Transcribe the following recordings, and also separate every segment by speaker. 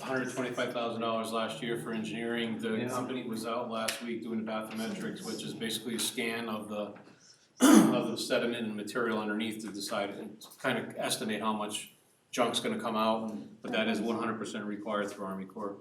Speaker 1: hundred twenty-five thousand dollars last year for engineering. The
Speaker 2: Yeah.
Speaker 1: company was out last week doing bathymetrics, which is basically a scan of the of the sediment and material underneath to decide and kind of estimate how much junk's gonna come out. But that is one hundred percent required through Army Corps.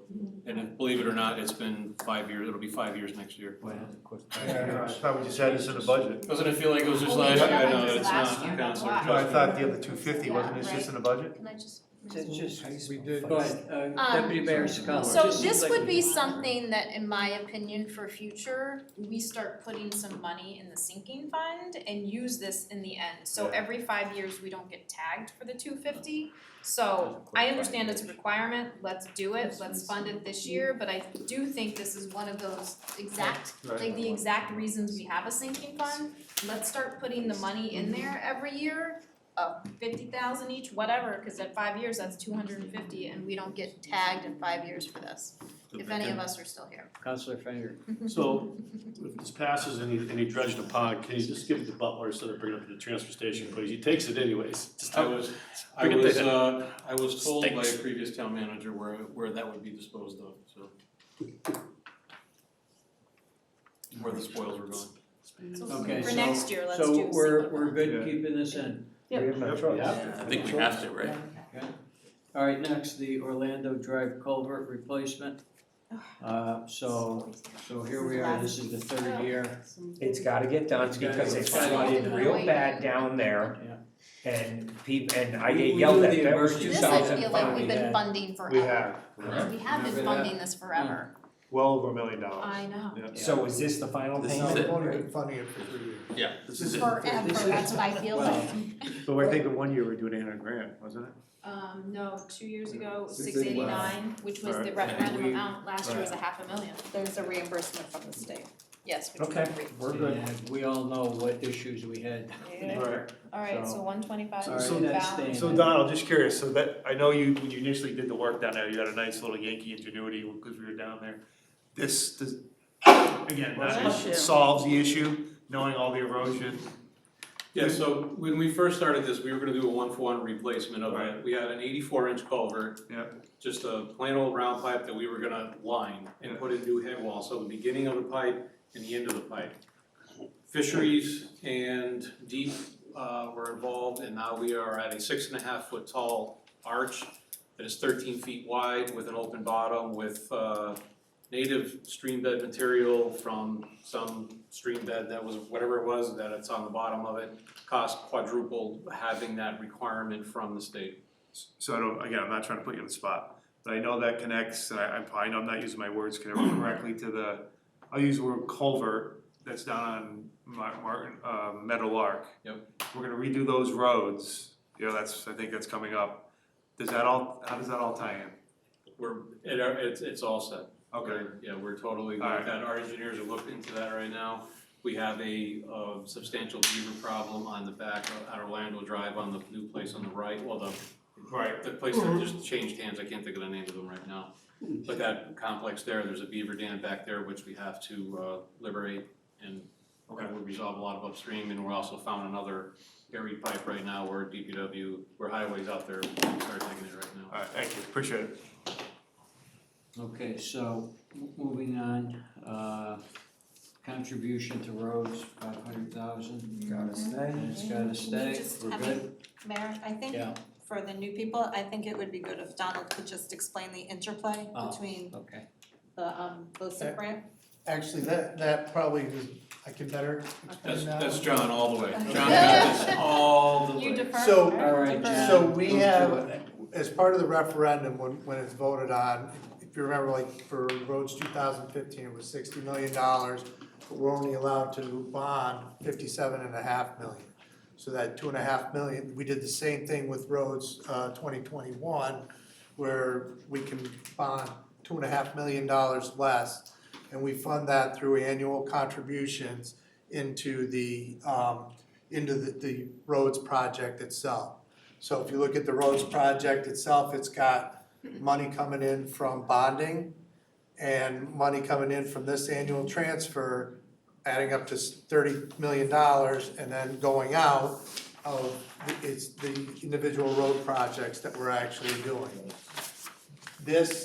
Speaker 1: And if- believe it or not, it's been five years, it'll be five years next year.
Speaker 3: I thought we just had this in the budget.
Speaker 1: Doesn't it feel like it was just
Speaker 4: Well,
Speaker 1: last
Speaker 4: we
Speaker 1: year?
Speaker 4: did
Speaker 1: I
Speaker 4: that
Speaker 1: know,
Speaker 4: this
Speaker 1: it's
Speaker 4: last
Speaker 1: not, Counselor,
Speaker 4: year, that's
Speaker 3: No,
Speaker 4: why.
Speaker 3: I
Speaker 1: trust me.
Speaker 3: thought the other two fifty, wasn't it just in the budget?
Speaker 4: Can I just?
Speaker 5: It's just,
Speaker 6: We did.
Speaker 2: Go ahead, uh,
Speaker 4: Um,
Speaker 2: Deputy Mayor Scott.
Speaker 4: So this would be something that, in my opinion, for future, we start putting some money in the sinking fund and use this in the end. So
Speaker 3: Yeah.
Speaker 4: every five years, we don't get tagged for the two fifty. So I understand it's a requirement, let's do it, let's fund it this year, but I do think this is one of those exact, like the exact reasons we have a sinking fund. Let's start putting the money in there every year, uh fifty thousand each, whatever, cause at five years, that's two hundred and fifty and we don't get tagged in five years for this, if any of us are still here.
Speaker 2: Counselor Fenger.
Speaker 7: So if this passes and he, and he dredged a pond, can you just give it to Butler instead of bringing it up to the transfer station, please? He takes it anyways. Just
Speaker 1: I
Speaker 7: don't-
Speaker 1: was, I
Speaker 7: Forget
Speaker 1: was,
Speaker 7: that.
Speaker 1: uh, I was told by a
Speaker 7: Stinks.
Speaker 1: previous town manager where, where that would be disposed of, so. Where the spoils were going.
Speaker 2: Okay,
Speaker 4: For
Speaker 2: so-
Speaker 4: next year, let's do
Speaker 2: So we're,
Speaker 4: single.
Speaker 2: we're
Speaker 3: Yeah.
Speaker 2: good keeping this in.
Speaker 5: Yep.
Speaker 3: We have no choice.
Speaker 7: Yeah.
Speaker 6: I think we have to, right?
Speaker 2: All right, next, the Orlando Drive culvert replacement. Uh, so, so here we are, this is the third year.
Speaker 5: It's gotta get done
Speaker 2: It's gotta
Speaker 5: because
Speaker 2: get
Speaker 5: it
Speaker 2: done.
Speaker 5: flooded real bad down there
Speaker 2: Yeah.
Speaker 5: and people, and I
Speaker 2: We-
Speaker 5: get
Speaker 2: we
Speaker 5: yelled
Speaker 2: do
Speaker 5: at,
Speaker 2: the
Speaker 5: that was
Speaker 2: emergency-
Speaker 5: two
Speaker 4: This I
Speaker 5: thousand
Speaker 4: feel like we've
Speaker 5: five.
Speaker 4: been funding forever.
Speaker 3: We have,
Speaker 4: We have been
Speaker 2: Remember that?
Speaker 4: funding this forever.
Speaker 3: well over a million
Speaker 8: Uh,
Speaker 3: dollars.
Speaker 4: I know.
Speaker 5: So is this the final
Speaker 6: This
Speaker 5: thing?
Speaker 6: is it.
Speaker 5: on
Speaker 6: We've been funding it for three years. Yeah, this is it.
Speaker 4: Forever,
Speaker 2: This is-
Speaker 4: that's what I feel
Speaker 2: Well,
Speaker 4: like.
Speaker 3: So I think in one year we we're doing eight hundred grand, wasn't it?
Speaker 4: Um, no, two years ago, six
Speaker 6: Six
Speaker 4: eighty-nine, which was the
Speaker 3: Alright.
Speaker 4: referendum
Speaker 6: And we-
Speaker 4: amount, last year was a half a million.
Speaker 8: There's a reimbursement from the state.
Speaker 4: Yes, which we
Speaker 5: Okay.
Speaker 4: agreed.
Speaker 5: We're good.
Speaker 2: and We all know what issues we had.
Speaker 3: Right.
Speaker 4: Alright,
Speaker 2: So-
Speaker 4: so one twenty-five
Speaker 2: All
Speaker 4: is
Speaker 2: right,
Speaker 4: the
Speaker 2: that's
Speaker 4: balance.
Speaker 3: So Donald, just curious, so that, I know you, when you initially did the work down there, you had a nice little Yankee ingenuity because we were down there. This, this, again, that solves the issue, knowing all the erosion.
Speaker 1: Yeah, so when we first started this, we were gonna do a one-for-one replacement of it.
Speaker 3: Right.
Speaker 1: We had an eighty-four inch culvert.
Speaker 3: Yeah.
Speaker 1: Just a plain old round pipe that we were gonna line and
Speaker 3: Yeah.
Speaker 1: put in new head wall, so the beginning of the pipe and the end of the pipe. Fisheries and deep, uh, were involved, and now we are at a six and a half foot tall arch that is thirteen feet wide with an open bottom with, uh, native stream bed material from some stream bed that was, whatever it was, that it's on the bottom of it cost quadrupled having that requirement from the state.
Speaker 3: So I don't, again, I'm not trying to put you on the spot, but I know that connects, and I, I probably know I'm not using my words correctly to the, I'll use the word culvert that's down on Mar- Martin, uh, Meadowlark.
Speaker 1: Yep.
Speaker 3: We're gonna redo those roads, you know, that's, I think that's coming up. Does that all, how does that all tie in?
Speaker 1: We're, it, it's, it's all set.
Speaker 3: Okay,
Speaker 1: We're- Yeah, we're totally good
Speaker 3: Alright.
Speaker 1: with that. Our engineers are looking into that right now. We have a, uh, substantial beaver problem on the back of at Orlando Drive on the new place on the right, well, the
Speaker 3: right,
Speaker 1: the place that just changed hands, I can't think of the name of them right now. But that complex there, there's a beaver dam back there which we have to, uh, liberate and
Speaker 3: Okay.
Speaker 1: we resolve a lot of upstream, and we're also found another buried pipe right now where DPW, where highways out there, we start digging it right now.
Speaker 3: all right, thank you, appreciate it.
Speaker 2: Okay, so m- moving on, uh, contribution to roads, five hundred thousand.
Speaker 6: Gotta stay.
Speaker 2: And it's gotta stay,
Speaker 8: Just
Speaker 2: we're
Speaker 8: have
Speaker 2: good,
Speaker 8: Mayor, I think
Speaker 2: yeah,
Speaker 8: for the new people, I think it would be good if Donald could just explain the interplay
Speaker 2: Oh.
Speaker 8: between
Speaker 2: okay.
Speaker 8: the um the SIP grant.
Speaker 6: Actually, that, that probably is, I can better
Speaker 1: That's,
Speaker 6: explain that.
Speaker 1: that's
Speaker 6: one.
Speaker 1: John all the way. John got this all the way.
Speaker 4: You defer.
Speaker 6: So-
Speaker 4: right?
Speaker 2: All right,
Speaker 4: Defer.
Speaker 6: So we
Speaker 2: Go
Speaker 6: have, as part of the referendum, when, when it's voted on, if you remember, like, for roads two thousand fifteen, it was sixty million dollars, but we're only allowed to bond fifty-seven and a half million. So that two and a half million, we did the same thing with roads, uh, twenty twenty-one, where we can bond two and a half million dollars less, and we fund that through annual contributions into the, um, into the, the roads project itself. So if you look at the roads project itself, it's got money coming in from bonding and money coming in from this annual transfer, adding up to thirty million dollars and then going out of, the- it's the individual road projects that we're actually doing. This